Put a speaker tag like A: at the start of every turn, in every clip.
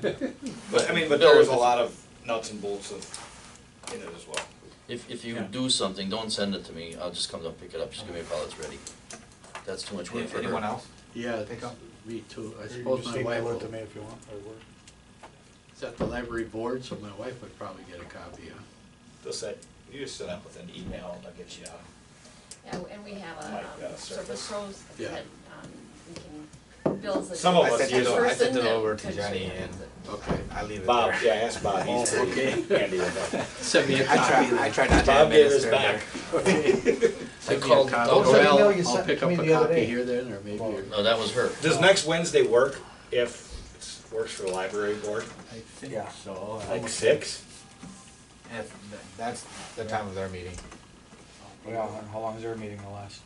A: But, I mean, but
B: Bill,
A: there is
B: if
A: a
B: it-
A: lot of nuts and bolts of, in it as well.
B: If, if you
C: Yeah.
B: do something, don't send it to me, I'll just come down and pick it up, just give me a call, it's ready. That's too much work for her.
A: Anyone else?
C: Yeah,
A: Pick up.
C: me too. I
D: You can
C: suppose
D: just
C: my wife
D: email
C: will,
D: it to me if you want, or work.
C: it's at the library board, so my wife would probably get a copy, huh?
A: Just set, you just set up with an email and I'll get you a
E: Yeah, and we have a,
A: Like, uh,
E: um,
A: surface.
E: surface roads
C: Yeah.
E: that, um, we can, Bill's a.
A: Some of us
E: first
A: use them. I
E: person
F: sent it
E: that
F: over to
E: could
F: Johnny
E: share.
F: and-
C: Okay.
F: I leave it
A: Bob, yeah,
F: there.
A: ask Bob, he's
C: Oh,
A: pretty
C: okay.
A: handy with that.
C: Send me a
F: I
C: copy
F: try, I
C: then.
F: try not to
A: Bob gave us
F: administer
A: back.
F: there.
C: Send
B: I
C: me a
B: called-
C: copy.
B: don't
C: Or
B: send
D: the email you
C: I'll, I'll
D: sent
C: pick
D: to
C: up
D: me
C: a
D: the other
C: copy
D: day.
C: here then, or maybe, or-
B: No, that was her.
A: Does next Wednesday work if it works for the library board?
G: I think
F: Yeah.
G: so.
A: Like six?
F: If th- That's the time of their meeting.
D: Yeah, and how long is their meeting gonna last?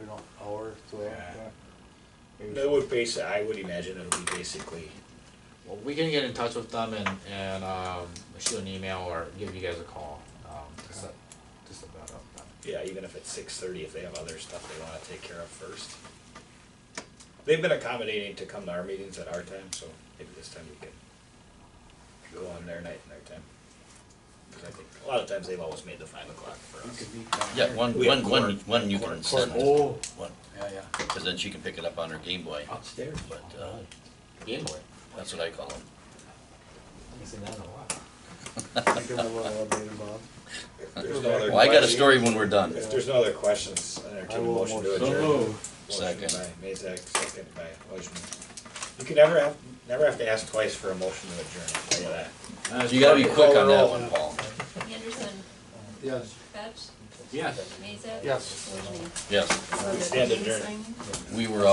D: We don't, hour, two hours?
A: Yeah.
D: yeah. Maybe
A: That would base, I would imagine it would be basically,
F: Well, we can get in touch with them and, and, um, shoot an email or give you guys a call, um, to set, to set that up. then.
A: yeah, even if it's six thirty, if they have other stuff they wanna take care of first. They've been accommodating to come to our meetings at our time, so maybe this time we can go on their night and their time. Cause I think, a lot of times they've always made the five o'clock for
C: you
A: us.
C: could meet down
B: Yeah,
C: there.
B: one,
A: We have
B: one, one,
A: court-
B: one you
A: court-
B: can
D: court-
B: send,
D: oh.
B: one,
C: Yeah, yeah.
B: cause then she can pick it up on her Game Boy,
C: Upstairs.
B: but, uh,
F: Game boy.
B: that's what I call them.
F: Haven't seen that in a while.
D: I'll Give them a little update, Bob.
A: There's no other
B: Well, I got a
A: question.
B: story when we're done.
A: If there's no other questions, I
D: I
A: entertain a
D: will
A: motion to
D: motion.
A: adjourn.
G: So
A: Motion
G: moved.
A: by
B: Second.
A: Mazak, second by Ojemi. You can never have, never have to ask twice for a motion to adjourn, I'll tell you that.
B: You gotta be quick on that
A: roll.
B: one, Paul.
E: Anderson,
D: Yes.
E: Fetch,
F: Yes.
E: Mazak.
D: Yes.
E: Wojni.
B: Yes,
A: We stand adjourned.
B: we were out.